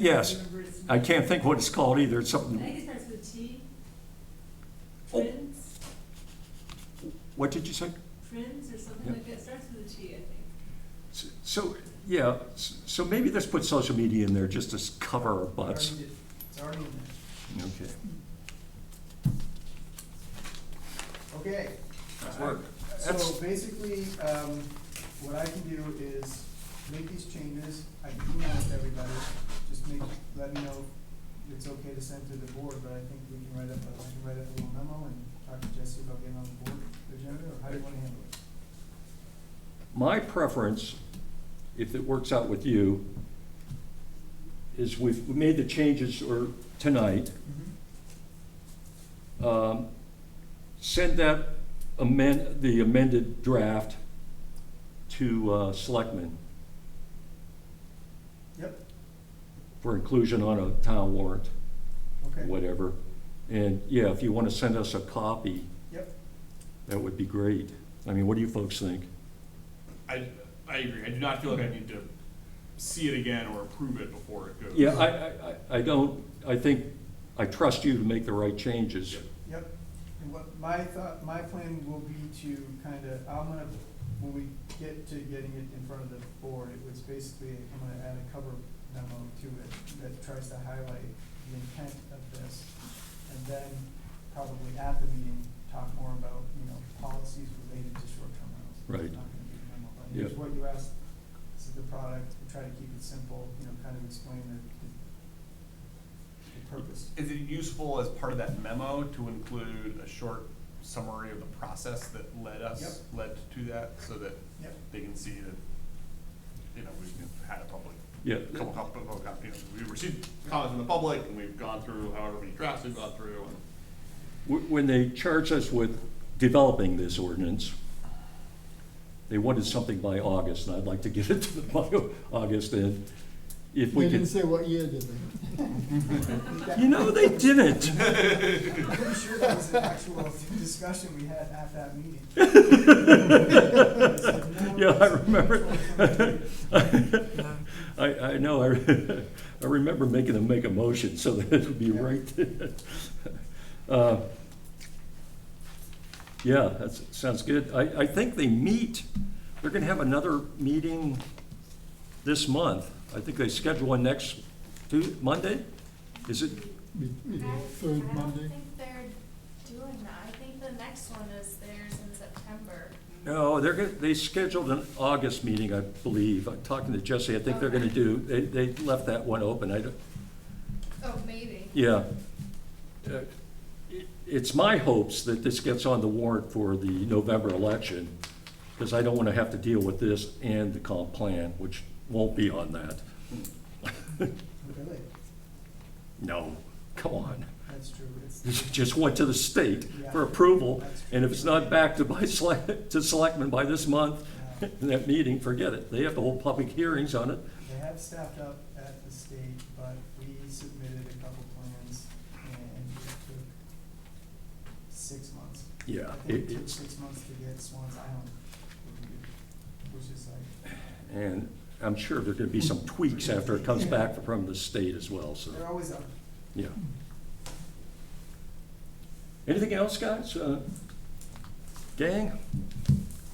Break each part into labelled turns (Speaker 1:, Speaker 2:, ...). Speaker 1: Yes.
Speaker 2: remember it's-
Speaker 1: I can't think what it's called either. It's
Speaker 2: I
Speaker 1: something,
Speaker 2: think it starts with T.
Speaker 1: Oh.
Speaker 2: Friends,
Speaker 1: what did you say?
Speaker 2: friends or something
Speaker 1: Yeah.
Speaker 2: like that, It starts with a T, I think.
Speaker 1: S- So, yeah, s- so maybe let's put social media in there just to s- cover our butts.
Speaker 3: Already did. It's already in there.
Speaker 1: Okay.
Speaker 3: Okay.
Speaker 1: That's work.
Speaker 3: So basically, um, what I can do is make these changes, I can email it to everybody, just make, let me know if it's okay to send to the board, but I think we can write up, a- I can write up a little memo and talk to Jesse about getting on the board agenda, or how do you wanna handle it?
Speaker 1: My preference, if it works out with you, is we've we made the changes or tonight. Um, Send that amend, the amended draft to uh, Selectmen
Speaker 3: Yep,
Speaker 1: for inclusion on a town warrant.
Speaker 3: okay,
Speaker 1: whatever. And yeah, if you want to send us a copy,
Speaker 3: yep,
Speaker 1: that would be great. I mean, what do you folks think?
Speaker 4: I, I agree. I do not feel like I need to see it again or approve it before it goes.
Speaker 1: Yeah, I, I- I, I don't, I think, I trust you to make the right changes.
Speaker 4: Yeah.
Speaker 3: yep. And what, my thought, my plan will be to kinda, I'm gonna, when we get to getting it in front of the board, it was basically, I'm gonna add a cover memo to it that tries to highlight the intent of this. And then probably at the meeting, talk more about, you know, policies related to short-term rentals. It's
Speaker 1: Right.
Speaker 3: Not gonna be a memo, but here's
Speaker 1: Yep.
Speaker 3: what you asked, this is the product, we try to keep it simple, you know, kind of explain the, the- the purpose.
Speaker 4: Is it useful as part of that memo to include a short summary of the process that led us, led to that, so that
Speaker 3: Yep.
Speaker 4: they can see that, you know, we've had a public,
Speaker 1: Yeah,
Speaker 4: a couple, couple, couple, you know, we received comments from the public, and we've gone through however many drafts we've gone through, and
Speaker 1: wh- when they charged us with developing this ordinance, they wanted something by August, and I'd like to get it to them by August, and if
Speaker 5: They
Speaker 1: we
Speaker 5: didn't
Speaker 1: could,
Speaker 5: say what year, did they?
Speaker 1: you know, they didn't.
Speaker 3: I'm pretty sure that was an actual discussion we had at that meeting.
Speaker 1: Yeah, I remember. I, I know, I, I remember making them make a motion so that it would be
Speaker 3: Yeah.
Speaker 1: right. Uh, Yeah, that's, sounds good. I, I think they meet, they're gonna have another meeting this month. I think they schedule one next Tu- Monday? Is it,
Speaker 5: Be- be the
Speaker 6: I-
Speaker 5: Third
Speaker 6: I
Speaker 5: Monday?
Speaker 6: don't think they're doing that. I think the next one is theirs in September.
Speaker 1: no, they're, gonna- they scheduled an August meeting, I believe. I'm talking to Jesse, I think they're gonna do, they, they left that one open. I don't,
Speaker 6: Oh, maybe.
Speaker 1: Yeah. Uh, it- It's my hopes that this gets on the warrant for the November election, because I don't want to have to deal with this and the comp plan, which won't be on that.
Speaker 3: Really?
Speaker 1: No, come on.
Speaker 3: That's true.
Speaker 1: It
Speaker 3: It's, uh,
Speaker 1: just went to the state for approval, and if it's not back to by select, to selectmen by this month,
Speaker 3: uh,
Speaker 1: in that meeting, forget it. They have to hold public hearings on it.
Speaker 3: They have staffed up at the state, but we submitted a couple plans and it took six months.
Speaker 1: Yeah,
Speaker 3: I think
Speaker 1: it-
Speaker 3: it took
Speaker 1: it's,
Speaker 3: six months to get Swans Island, reviewed, which is like,
Speaker 1: and I'm sure there're going to be some tweaks after it comes back from the state as well, so.
Speaker 3: they're always up.
Speaker 1: Yeah. Anything else, guys? Uh, Gang?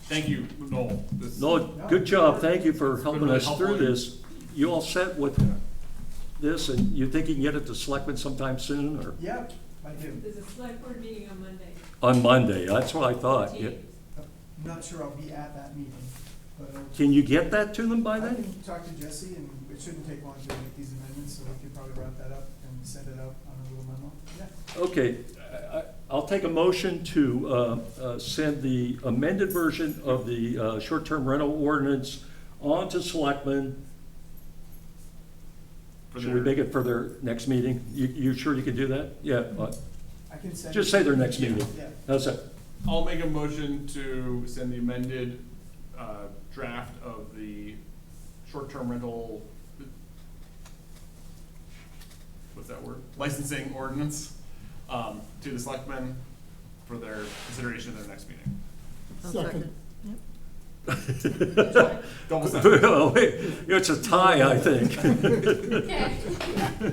Speaker 4: thank you, Noel. This-
Speaker 1: No, good job, thank you for helping
Speaker 4: really
Speaker 1: us through
Speaker 4: helpful.
Speaker 1: this. You all set with this, and you think you can get it to Selectmen sometime soon, or?
Speaker 3: Yep, I do.
Speaker 2: There's a select board meeting on Monday.
Speaker 1: On Monday, that's what I thought. Yeah.
Speaker 2: 14th.
Speaker 3: I'm not sure I'll be at that meeting, but I'll
Speaker 1: Can you get that to them by
Speaker 3: I
Speaker 1: then?
Speaker 3: can talk to Jesse, and it shouldn't take long to make these amendments, so we could probably wrap that up and send it out on a little memo. Yeah,
Speaker 1: Okay, I- I- I'll take a motion to uh, uh, send the amended version of the uh, short-term rental ordinance on to Selectmen
Speaker 4: for
Speaker 1: Should we
Speaker 4: their-
Speaker 1: make it for their next meeting? You, you sure you can do that? Yeah, uh,
Speaker 3: I can send.
Speaker 1: just
Speaker 3: it-
Speaker 1: say their next meeting.
Speaker 3: Yeah,
Speaker 1: How's that?
Speaker 4: I'll make a motion to send the amended uh, draft of the short-term rental, what's that word? Licensing ordinance um, to the selectmen for their consideration at their next meeting.
Speaker 7: I'll
Speaker 5: Second.
Speaker 7: Yep.
Speaker 4: Don't.
Speaker 1: It's a tie, I think.
Speaker 6: Okay.